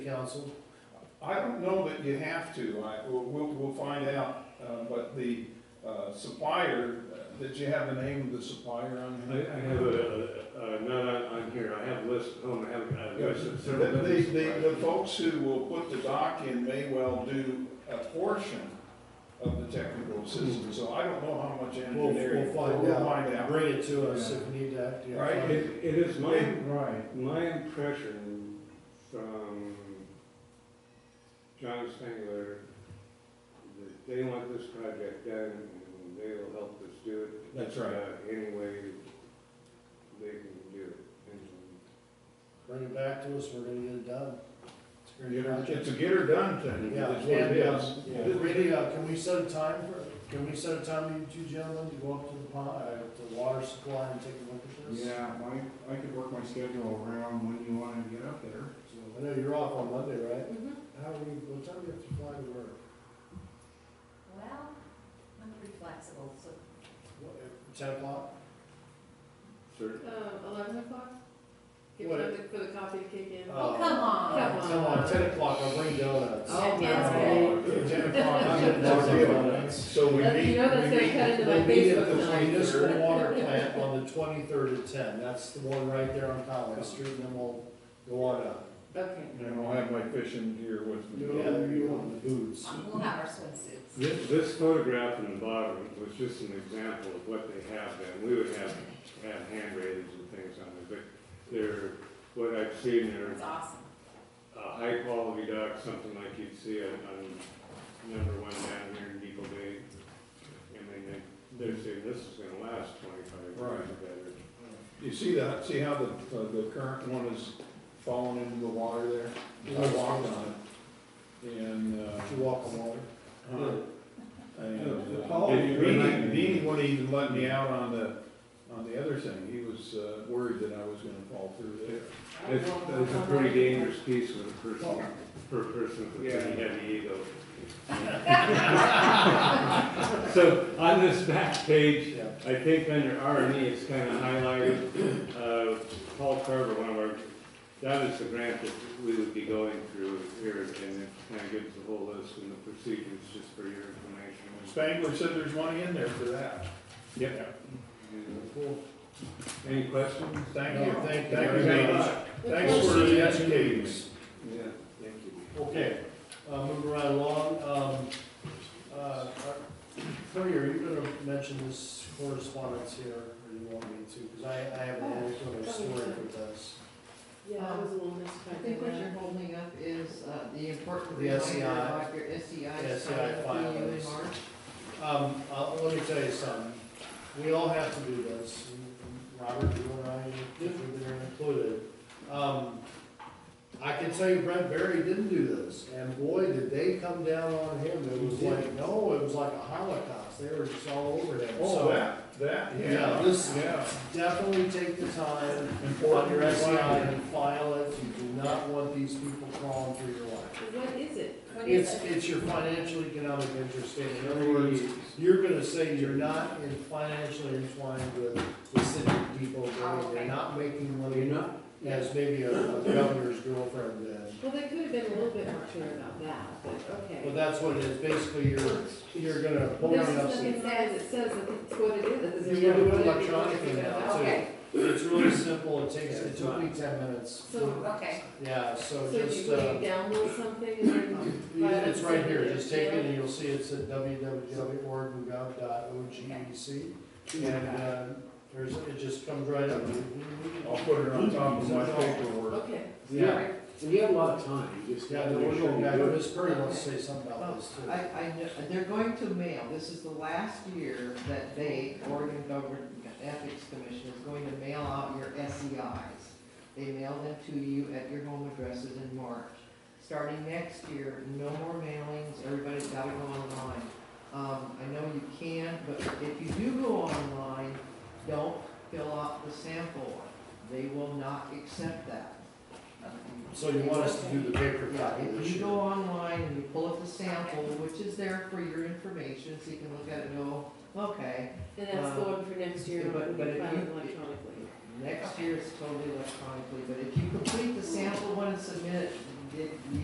council. I don't know that you have to, I, we'll, we'll, we'll find out, uh, but the, uh, supplier, uh, did you have the name of the supplier on I, here? I have a, a- a- not on, on here, I have a list at home, I have, I have a list of The, several. business the, the suppliers. folks who will put the dock in may well do a portion of the technical assistance, so I don't know how much We'll, engineering. we'll find We'll out, find out. bring it to us if we need to. yeah, Right. find It, it. it is my, Right, my impression from John Sangler, that they want this project done, and they will help us do it. That's right. uh, Any way they can do it. And Bring it back to us, we're gonna get it done. It's a great project. It's a get her done thing, Yeah, that's what it is. and, uh, really, uh, can we set a time for, can we set a time, you two gentlemen, to go up to the pond, uh, to the water supply and take a look at this? yeah, I, I could work my schedule around when you wanna get up there, so. I know you're off on Monday, right? Mm-hmm. How are we, what time do you have to fly to work? Well, I'm pretty flexible, so. What, at Ten o'clock? Certain, Um, eleven o'clock? Give What? time for the coffee to kick in. Oh, come on. uh, Come Come on, on. ten o'clock, I'll bring donuts. Uh, Oh, that's Oh, okay, Ten o'clock, I'm getting Lots of worried. donuts. So we Uh, you meet, know that's we gonna meet, cut into my We'll meet at Facebook the tonight. municipal water plant on the twenty-third at ten, that's the one right there on College Street, and then we'll go on up. Okay. and I'll have my fishing gear with me. the boots. We'll have our swimsuits. This, this photograph in the bottom was just an example of what they have then. We would have, have hand ratings and things on there, but they're, what I've seen, they're It's awesome. a high quality dock, something like you'd see on, on number one down here in Depot Bay. I mean, they, they're saying this is gonna last twenty-five years or better. You see that, see how the, uh, the current one is falling into the water there? I walked on it, and, uh, Did you walk on water? and, The uh, tall- Beanie, Beanie wouldn't even let me out on the, on the other thing, he was, uh, worried that I was gonna fall through there. It's, it's a pretty dangerous piece with a person, per person with a pretty heavy ego. So on this back page, Yeah. I think under R and E, it's kind of highlighted, uh, Paul Carver, one of our, that is the grant that we would be going through here, and it kind of gives the whole list and the procedures just for your information. Spangler said there's money in there for that. Yep. Cool. Any questions? Thank you, No, thank, thank thank you you very very much. Thanks Let's for go see. educating me. Yeah, thank you. Okay, uh, moving right along, um, uh, Tony, are you gonna mention this correspondence here, or you want me to? Cause I, I have a little sort of story for this. Yeah, that was a little I mistyped. think what you're holding up is uh, the important The E reminder SEI. about your SEI. SEI sign-up file fee in is- March. E Um, uh, let me tell you something, we all have to do this, Robert, you and I, we've been included. Um, I can tell you Brent Berry didn't do this, and boy, did they come down on him, it was like, no, it was like a holocaust, they were just all over him, Oh, so. that, that, Yeah, yeah, this- yeah. Definitely take the time, on Important E your SEI reminder. and file it, you do not want these people crawling through your life. What is it? What is It's, it? it's your financial economic interest statement. In other words, you're gonna say you're not in financially entwined with the city of Depot Oh, Bay. okay. You're not making You money know? as maybe a a governor's girlfriend did. Well, they could have been a little bit more clear about that, but But okay. that's what it is. Basically, you're, you're gonna hold There's it up. nothing wrong with it says that it's what it is. You It's gotta do it what it is. electronically now, too. Okay, It's really simple. It takes, it took me ten minutes. So, okay. Yeah, so so you, just, will uh, you download something and then? it's right here. Just take it and you'll see it's at www.oregongovernor.ogec. E And, uh, there's, it just comes right up. I'll put it on top of my paperwork. Okay. Yeah. And you have a lot of time, you just Yeah, gotta the make sure original guy, you do it. Chris Perry wants to say something about this I, too. I, kn- they're going to mail, this is the last year that they, Oregon Government Ethics Commission, is going to mail out your SEIs. They mail them to you at your home addresses in March. Starting next year, no more mailings, everybody's gotta go online. Um, I know you can, but if you do go online, don't fill out the sample. They will not accept that. So you want us to do the paper Yeah, copy if this you year? go online and you pull up the sample, which is there for your information, so you can look at it and go, okay, And that's Uh, the one for next year, But- when but you if file you- it electronically. next year it's totally electronically, but if you complete the sample one and submit it, did, you